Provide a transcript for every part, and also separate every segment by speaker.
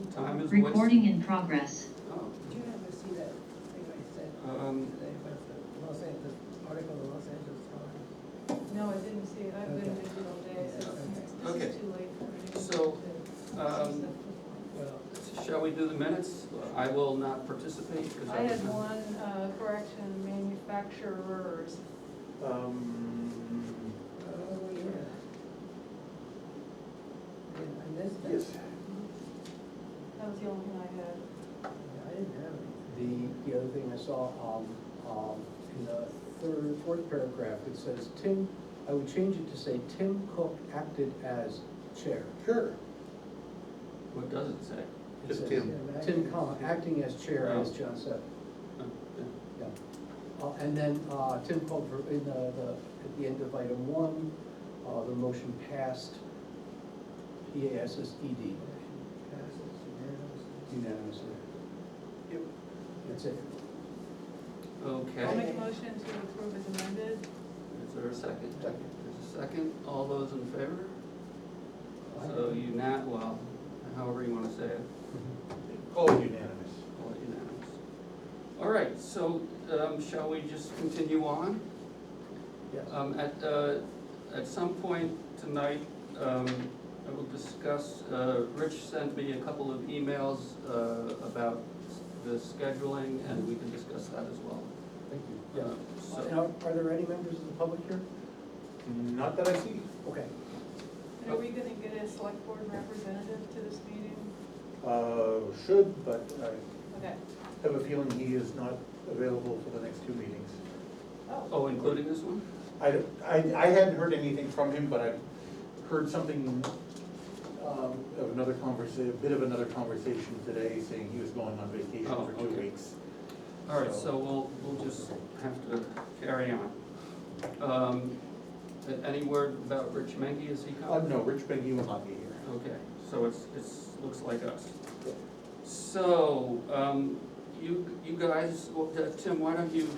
Speaker 1: was wasted.
Speaker 2: Recording in progress.
Speaker 1: Oh,
Speaker 3: Did you ever see that thing I said
Speaker 1: Um,
Speaker 3: today about the Los Angeles, article in the Los Angeles Times?
Speaker 4: No, I didn't see it, I've been
Speaker 3: Okay.
Speaker 4: busy all day, so it's-
Speaker 1: Okay.
Speaker 4: this is too late for me.
Speaker 1: So,
Speaker 4: to-
Speaker 1: um,
Speaker 4: to-
Speaker 3: Well,
Speaker 1: shall we do the minutes? I will not participate because I.
Speaker 4: I
Speaker 1: was
Speaker 4: had
Speaker 1: not-
Speaker 4: one uh, correction, manufacturers,
Speaker 5: Um,
Speaker 3: oh, yeah. I missed that.
Speaker 5: yes,
Speaker 4: that was the only thing I had.
Speaker 3: Yeah, I didn't have any.
Speaker 6: The, the other thing I saw, um, um, in the third, fourth paragraph, it says, Tim, I would change it to say, Tim Cook acted as chair.
Speaker 5: sure,
Speaker 1: What does it say?
Speaker 6: It
Speaker 5: Just
Speaker 6: says,
Speaker 5: Tim.
Speaker 6: Tim, comma, acting as chair as
Speaker 1: Oh.
Speaker 6: John said.
Speaker 1: Uh, yeah.
Speaker 6: Yeah. Uh, and then, uh, Tim Cook, for- in the, the, at the end of item one, uh, the motion passed, P A S S E D,
Speaker 3: Motion Passes unanimously.
Speaker 6: unanimously.
Speaker 5: Yep.
Speaker 6: That's it.
Speaker 4: I'll
Speaker 1: uh, Okay,
Speaker 4: make a motion to approve as amended.
Speaker 1: is there a second?
Speaker 6: Second.
Speaker 1: There's a second, all those in favor? So you not, well, however you wanna say it,
Speaker 5: all unanimous.
Speaker 1: all unanimous. All right, so, um, shall we just continue on?
Speaker 6: Yes.
Speaker 1: Um, at, uh, at some point tonight, um, I will discuss, uh, Rich sent me a couple of emails, uh, about the scheduling, and we can discuss that as well.
Speaker 6: Thank you. Yeah.
Speaker 1: Uh,
Speaker 6: Uh,
Speaker 1: So,
Speaker 6: and Are are there any members of the public here?
Speaker 5: Not that I see.
Speaker 6: Okay.
Speaker 4: And
Speaker 1: Oh.
Speaker 4: are we gonna get a select board representative to this meeting?
Speaker 5: Uh, should, but I
Speaker 4: Okay.
Speaker 3: Uh,
Speaker 5: have a feeling he is not available for the next two meetings.
Speaker 1: oh, including this one?
Speaker 5: I, I, I hadn't heard anything from him, but I've heard something, um, of another conversation, a bit of another conversation today, saying he was going on vacation
Speaker 1: Oh,
Speaker 5: for two
Speaker 1: okay.
Speaker 5: weeks.
Speaker 1: All right, so we'll, we'll just have to carry on. Um, a- Any word about Rich Mengy, is he
Speaker 5: Uh,
Speaker 1: coming?
Speaker 5: no, Rich Bengi will not be here.
Speaker 1: Okay, so it's, it's, looks like us. So, um, you, you guys, well, uh, Tim, why don't you,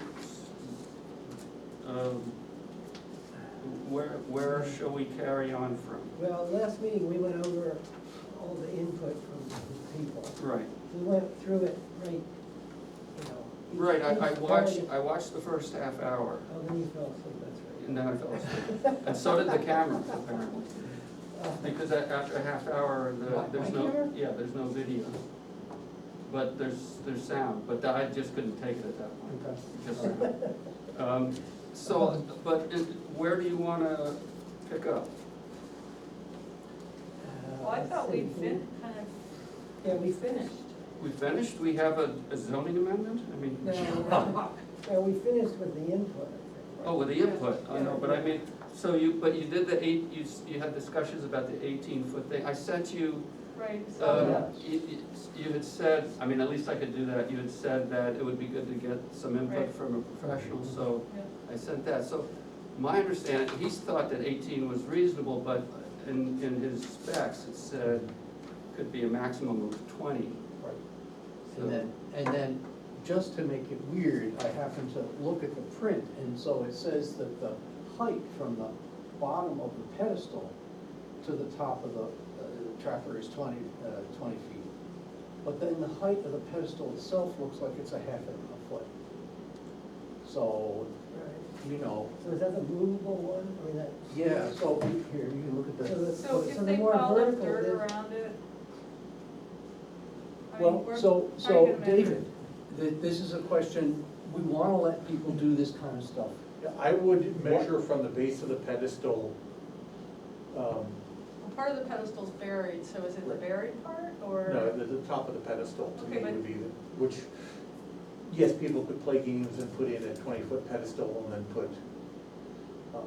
Speaker 1: um, where, where shall we carry on from?
Speaker 3: Well, last meeting, we went over all the input from the people.
Speaker 1: Right,
Speaker 3: We went through it right, you know. each-
Speaker 1: right, I, I
Speaker 3: each
Speaker 1: watched,
Speaker 3: part
Speaker 1: I watched the first half hour,
Speaker 3: of- Oh, then you fell asleep, that's right.
Speaker 1: and then I fell asleep. And so did the camera, apparently.
Speaker 3: Uh,
Speaker 1: Because a- after a half hour, the-
Speaker 3: Right
Speaker 1: there's
Speaker 3: here?
Speaker 1: no, yeah, there's no video. But there's, there's sound, but I just couldn't take it at that point,
Speaker 6: Okay.
Speaker 1: just sound. Um, So, but it- where do you wanna pick up?
Speaker 3: Uh,
Speaker 4: Well, I thought we'd fin, kind of
Speaker 3: Yeah, we finished.
Speaker 1: We finished, we have a a zoning amendment? I
Speaker 3: No,
Speaker 1: mean,
Speaker 3: no, no, Oh. we finished with the input, I think.
Speaker 1: oh, with the input, I know, but I mean, so you, but you did the eight, you, s- you had discussions about the eighteen foot thing. I sent you
Speaker 4: Right, so,
Speaker 1: Um, You you- you had said, I mean, at least I could do that, you had said that it would be good to get some input
Speaker 4: Right.
Speaker 1: from a professional, so
Speaker 4: yeah,
Speaker 1: I sent that. So my understanding, he's thought that eighteen was reasonable, but in, in his specs, it said could be a maximum of twenty.
Speaker 6: Right.
Speaker 1: So-
Speaker 6: And then, and then, just to make it weird, I happened to look at the print, and so it says that the height from the bottom of the pedestal to the top of the uh, trapper is twenty, uh, twenty feet. But then the height of the pedestal itself looks like it's a half a foot. So,
Speaker 3: Right.
Speaker 6: you know,
Speaker 3: So is that the movable one, I mean, that?
Speaker 6: yeah, so here, you can look at
Speaker 3: So
Speaker 6: the,
Speaker 3: the-
Speaker 4: so
Speaker 3: so
Speaker 4: if
Speaker 3: the
Speaker 4: they
Speaker 3: more
Speaker 4: follow
Speaker 3: vertical,
Speaker 4: dirt
Speaker 3: then-
Speaker 4: around it. I mean,
Speaker 6: well,
Speaker 4: we're-
Speaker 6: so,
Speaker 4: how are you
Speaker 6: so,
Speaker 4: gonna measure
Speaker 6: David, th- this is a question, we wanna let people do this kind of stuff.
Speaker 5: Yeah, I would measure from the base of the pedestal, um,
Speaker 4: Well, Part of the pedestal's buried, so is it the
Speaker 5: Right.
Speaker 4: buried part, or?
Speaker 5: no, the, the top of the pedestal to me
Speaker 4: Okay, but-
Speaker 5: would be, the which, yes, people could play games and put in a twenty-foot pedestal and then put, um,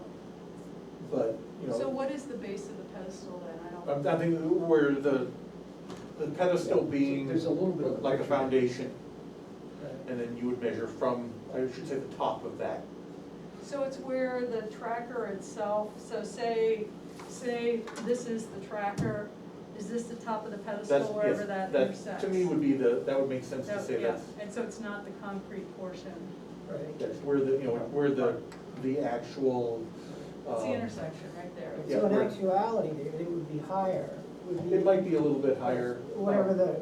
Speaker 5: but, you
Speaker 4: So
Speaker 5: know,
Speaker 4: what is the base of the pedestal then? I don't.
Speaker 5: I'm, I think where the, the pedestal
Speaker 6: Yeah,
Speaker 5: being
Speaker 6: there's a little bit of a
Speaker 5: like a
Speaker 6: picture.
Speaker 5: foundation,
Speaker 3: Right.
Speaker 5: and then you would measure from, I should say, the top of that.
Speaker 4: So it's where the tracker itself, so say, say this is the tracker, is this the top of the pedestal
Speaker 5: That's,
Speaker 4: wherever
Speaker 5: yes,
Speaker 4: that intersects?
Speaker 5: that, to me would be the, that would make sense to
Speaker 4: That-
Speaker 5: say
Speaker 4: yeah,
Speaker 5: that's,
Speaker 4: And so it's not the concrete portion,
Speaker 3: Right.
Speaker 5: that's where the, you know, where the, the actual,
Speaker 4: it's the
Speaker 5: um,
Speaker 4: intersection right there.
Speaker 5: Yeah,
Speaker 3: So in
Speaker 5: we're-
Speaker 3: actuality, David, it would be higher, would be.
Speaker 5: It might be a little bit higher. um,
Speaker 3: Whatever the